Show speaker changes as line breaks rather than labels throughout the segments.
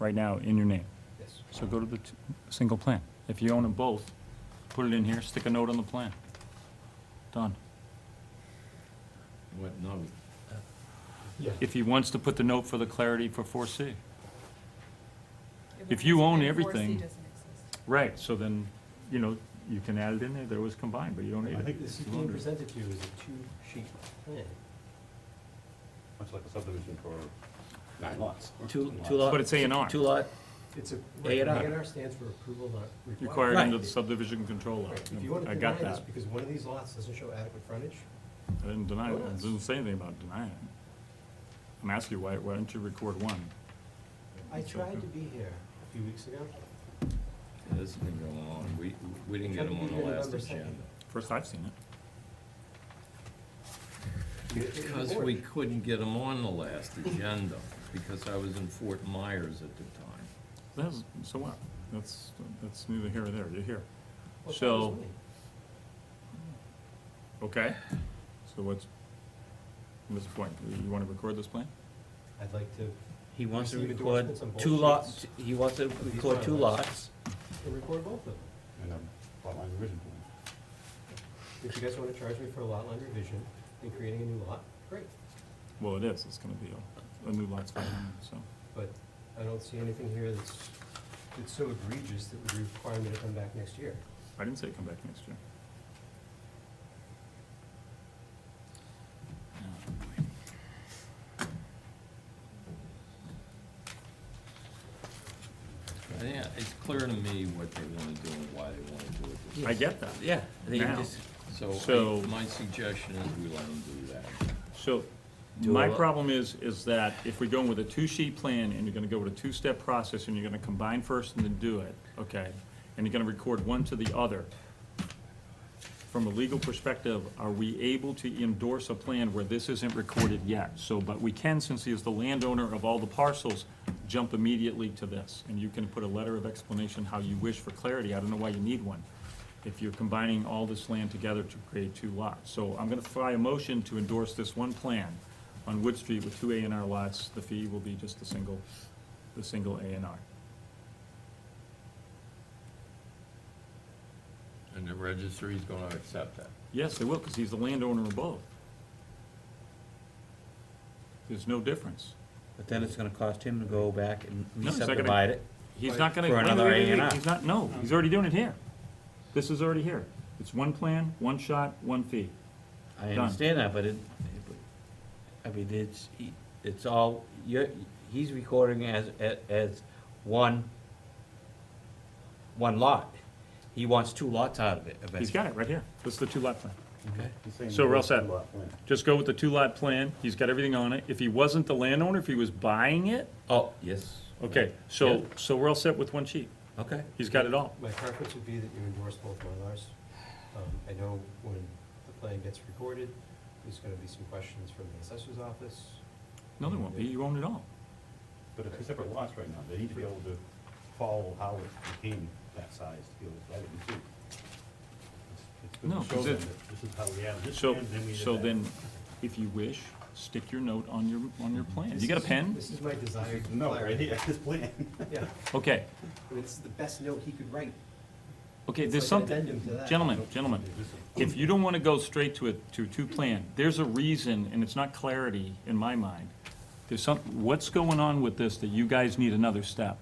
right now in your name.
Yes.
So go to the t- single plan. If you own them both, put it in here, stick a note on the plan. Done.
What, no,
Yeah.
If he wants to put the note for the clarity for 4C. If you own everything- Right, so then, you know, you can add it in there, there was combined, but you don't need
I
it.
think this is being presented to you as a two-sheet plan.
Much like a subdivision for nine lots.
Two, two lot.
But it's A and R.
Two lot,
It's a,
A
A
and R.
and R stands for approval not required.
Required under the
Right.
subdivision control law.
Right, If you want to
I got
deny this
that.
because one of these lots doesn't show adequate frontage,
I didn't deny it, I
Yes.
didn't say anything about denying it. I'm asking you, why, why don't you record one?
I tried to be here a few weeks ago.
this didn't go along, we, we didn't get them on the last agenda.
First I've seen it.
Because we couldn't get them on the last agenda, because I was in Fort Myers at the time.
That's, so what? That's, that's neither here nor there, you're here.
Well, that
So-
was me.
Okay, so what's, what's the point? You wanna record this plan?
I'd like to
he wants to
Receive
record
endorsements on both
two lots,
sheets.
he wants to
These
record two
bylaws.
lots.
record both of them.
And um, a lot line revision plan.
If you guys want to charge me for a lot line revision and creating a new lot, great.
Well, it is, it's gonna be a, a new lot's filing, so.
But I don't see anything here that's, that's so egregious that would require me to come back next year.
I didn't say come back next year.
Yeah, it's clear to me what they wanna do and why they wanna do it. this
I get that.
Yeah. they
Now.
just-
way. So,
So-
I- my suggestion is we let them do that.
So,
Do
my
a lot.
problem is, is that if we're going with a two-sheet plan, and you're gonna go with a two-step process, and you're gonna combine first and then do it, okay? And you're gonna record one to the other. From a legal perspective, are we able to endorse a plan where this isn't recorded yet? So, but we can, since he is the landowner of all the parcels, jump immediately to this. And you can put a letter of explanation how you wish for clarity, I don't know why you need one, if you're combining all this land together to create two lots. So I'm gonna fly a motion to endorse this one plan on Wood Street with two A and R lots. The fee will be just the single, the single A and R.
And the registry's gonna accept that.
Yes, they will, because he's the landowner of both. There's no difference.
But then it's gonna cost him to go back and
No, it's not gonna-
re-subdivide it.
He's not gonna.
For
wait,
another
wait, wait, wait,
A&R.
He's not, no, he's already doing it here. This is already here. It's one plan, one shot, one fee.
I
Done.
understand that, but it, I mean, it's, it's all, you're, he's recording as, as, as one, one lot. He wants two lots out of it eventually.
He's got it right here. This is the two lot plan.
Okay.
He's saying
So we're all set.
lot plan.
Just go with the two lot plan. He's got everything on it. If he wasn't the landowner, if he was buying it,
Oh, yes.
okay, so, so we're all set with one sheet.
Okay.
He's got it all.
My preference would be that you endorse both Mylars. Um, I know when the plan gets recorded, there's gonna be some questions from the assessor's office.
No, there won't be. You own it all.
But they're two separate lots right now, they need to be able to follow how it became that size to be able to add it in two. It's- it's good to
No,
show
'cause
them
it-
that This is how we added this
So,
plan, then we did
so
that.
then, if you wish, stick your note on your, on your plan. You got a
This is-
pen?
This is my desired
No, right
clarity.
here, this plan.
Yeah,
Okay,
I mean, this is the best note he could write.
okay,
It's
there's
like an
something,
addendum to that.
gentlemen, gentlemen,
This is-
if you don't wanna go straight to a, to two plan, there's a reason, and it's not clarity in my mind. There's some, what's going on with this that you guys need another step?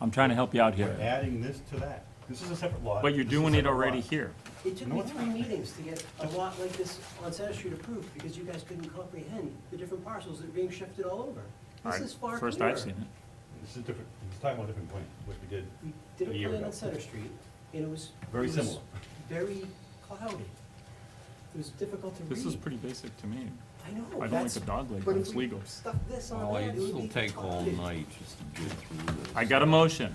I'm trying to help you out
We're
here,
adding this to that, this is a separate lot.
but you're
this is a
doing it
separate
already
lot.
here.
It took
No,
me
it's
three meetings to get a lot like this on Center Street approved, because you guys couldn't comprehend the different parcels that are being shifted all over. This
Alright,
is far clearer.
First I've seen it.
This is different, he's talking about a different plan, which we did
We
A
did
year
a plan
ago.
on Center Street, and it was.
Very
it was
similar.
Very cloudy. It was difficult to read.
This is pretty basic to me.
I
I
know,
don't
that's.
like a dog leg,
but
but
if
it's
we
legal.
Stuck this on
Well,
that, it would
this'll
be
take all
fine.
night just to get through this.
I got a motion.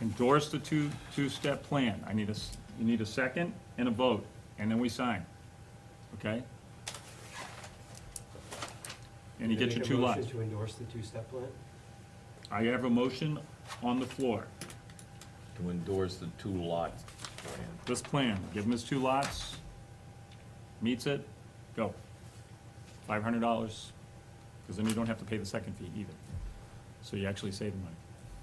Endorse the two, two-step plan. I need a, s- you need a second and a vote, and then we sign. Okay? And you get your
Make a
two
motion
lots.
To endorse the two-step plan?
I have a motion on the floor.
To endorse the two lots plan.
This plan, give him his two lots, meets it, go. Five hundred dollars, because then you don't have to pay the second fee either. So you actually save the money.